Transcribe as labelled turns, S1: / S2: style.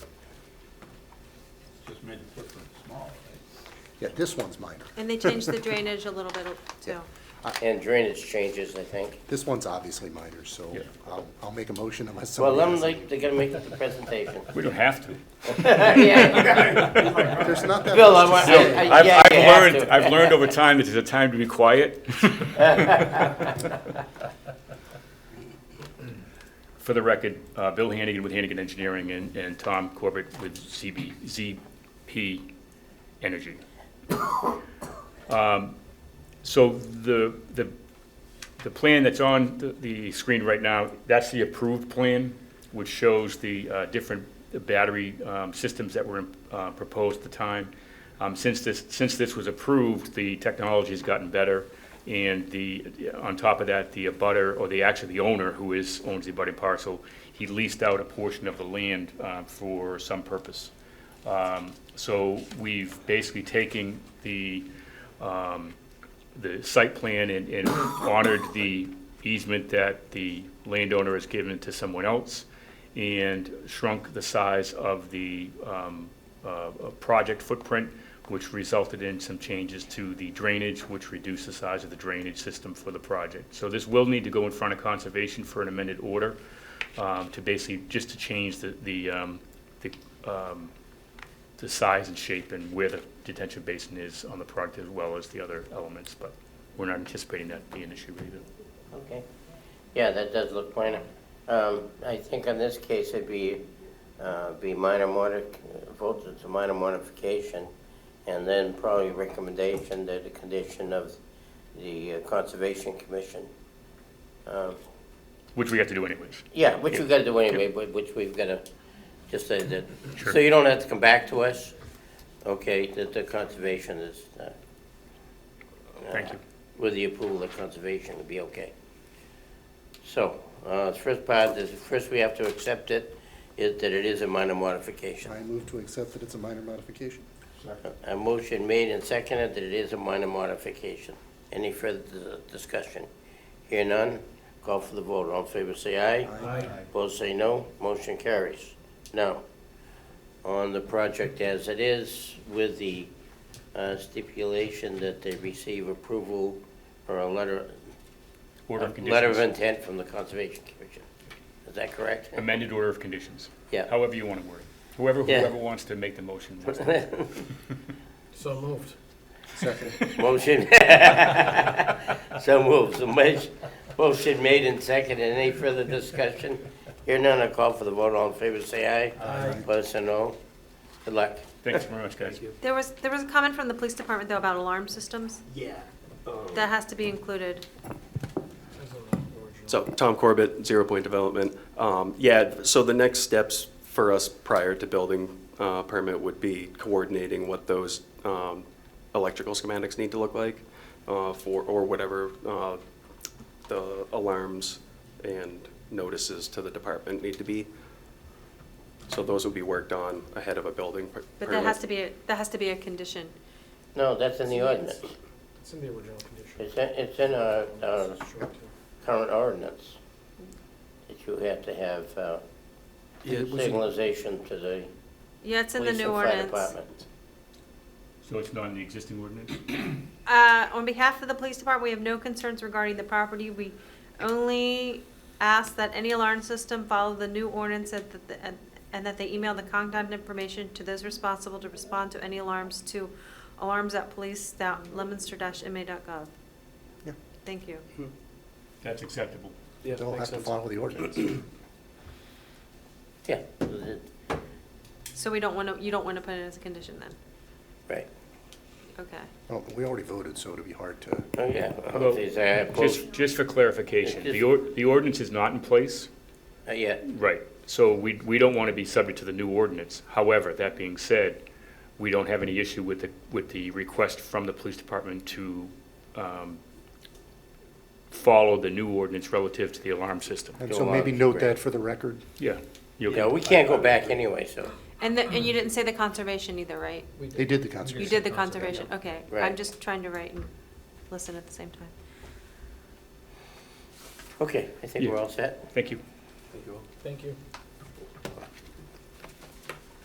S1: different, small, right? Yeah, this one's minor.
S2: And they changed the drainage a little bit too.
S3: And drainage changes, I think.
S1: This one's obviously minor, so
S4: Yeah.
S1: I'll, I'll make a motion unless
S3: Well,
S1: somebody
S3: let them,
S1: has.
S3: like, they're gonna make the presentation.
S4: We don't have to.
S1: There's not that
S3: Bill, I
S1: much
S3: want-
S1: to say.
S3: I- I-
S4: I've,
S3: yeah,
S4: I've
S3: you have
S4: learned,
S3: to.
S4: I've learned over time that it's a time to be quiet. For the record, uh, Bill Hannigan with Hannigan Engineering and, and Tom Corbett with ZB, ZP Energy. Um, So the, the, the plan that's on the, the screen right now, that's the approved plan, which shows the, uh, different battery, um, systems that were, uh, proposed at the time. Um, since this, since this was approved, the technology's gotten better, and the, on top of that, the abutter, or the, actually the owner, who is, owns the abutting parcel, he leased out a portion of the land, uh, for some purpose. Um, so we've basically taken the, um, the site plan and, and honored the easement that the landowner has given to someone else and shrunk the size of the, um, uh, uh, project footprint, which resulted in some changes to the drainage, which reduced the size of the drainage system for the project. So this will need to go in front of conservation for an amended order, um, to basically, just to change the, the, um, the, um, the size and shape and where the detention basin is on the product as well as the other elements, but we're not anticipating that being an issue either.
S3: Okay. Yeah, that does look minor. Um, I think on this case, it'd be, uh, be minor modi, vote it's a minor modification, and then probably recommendation that the condition of the uh, Conservation Commission. Um,
S4: Which we have to do anyways.
S3: Yeah, which we've got to do anyway, but which we've got to, just say that, so you don't have to come back to us, okay, that the conservation is. uh,
S4: Thank you.
S3: With the approval of conservation, it'll be okay. So, uh, the first part, is, first we have to accept it, is that it is a minor modification.
S1: I move to accept that it's a minor modification.
S3: A motion made and seconded that it is a minor modification. Any further dis- discussion? Hear none, call for the vote. All in favor, say aye.
S1: Aye.
S3: Opposed, say no. Motion carries. Now, on the project as it is, with the uh, stipulation that they receive approval or a letter,
S4: Order of
S3: a Uh, letter of
S4: conditions.
S3: intent from the Conservation Commission. Is that correct?
S4: Amended order of conditions.
S3: Yeah.
S4: However you want to word it. Whoever,
S3: Yeah.
S4: whoever wants to make the motion. wants to.
S5: So moved.
S1: Second.
S3: Motion. So moved. So much- Motion made and seconded. Any further discussion? Hear none, I call for the vote. All in favor, say aye.
S5: Aye.
S3: Opposed, say no. Good luck.
S4: Thanks very much, guys.
S2: There was, there was a comment from the police department though about alarm systems.
S5: Yeah.
S2: That has to be included.
S6: So, Tom Corbett, Zero Point Development. Um, Yeah, so the next steps for us prior to building uh, permit would be coordinating what those um, electrical schematics need to look like uh, for, or whatever uh, the alarms and notices to the department need to be. So those would be worked on ahead of a building per- permit.
S2: But that has to be, a- that has to be a condition.
S3: No, that's in the ordinance.
S5: It's in the original condition.
S3: It's in, it's in our, our
S5: It's short-term.
S3: current ordinance that you have to have uh,
S6: Yeah, it was in-
S3: signalization to the
S2: Yeah, it's in the
S3: police and
S2: new
S3: fire
S2: ordinance.
S3: department.
S4: So it's not in the existing ordinance?
S2: Uh, on behalf of the police department, we have no concerns regarding the property. We only ask that any alarm system follow the new ordinance and that, the- and- and that they email the contact information to those responsible to respond to any alarms to alarms@police.lemonster-ma.gov.
S1: Yeah.
S2: Thank you.
S4: That's acceptable.
S6: Yeah,
S1: They'll
S6: makes
S1: have to
S6: sense.
S1: follow the ordinance.
S3: Yeah, it-
S2: So we don't want to, you don't want to put it as a condition then?
S3: right.
S2: Okay.
S1: Well, we already voted, so it'd be hard to,
S3: Oh, yeah.
S4: Although,
S3: These are both-
S4: Just, just for clarification, the, or- the ordinance is not in place.
S3: uh, Yeah,
S4: Right, so we, we don't want to be subject to the new ordinance. However, that being said, we don't have any issue with the, with the request from the police department to um, follow the new ordinance relative to the alarm system.
S1: and
S3: Go
S1: so maybe
S3: on,
S1: note
S3: great.
S1: that for the record.
S4: Yeah. You
S3: yeah,
S4: okay?
S3: we can't go back anyway, so,
S2: And the, and you didn't say the conservation either, right?
S5: We did.
S1: They did the
S2: You
S1: conservation.
S2: did the conservation, okay. I'm
S3: Right.
S2: just trying to write and listen at the same time.
S3: okay, I think we're
S4: Yeah.
S3: all set.
S4: Thank you.
S5: Thank you.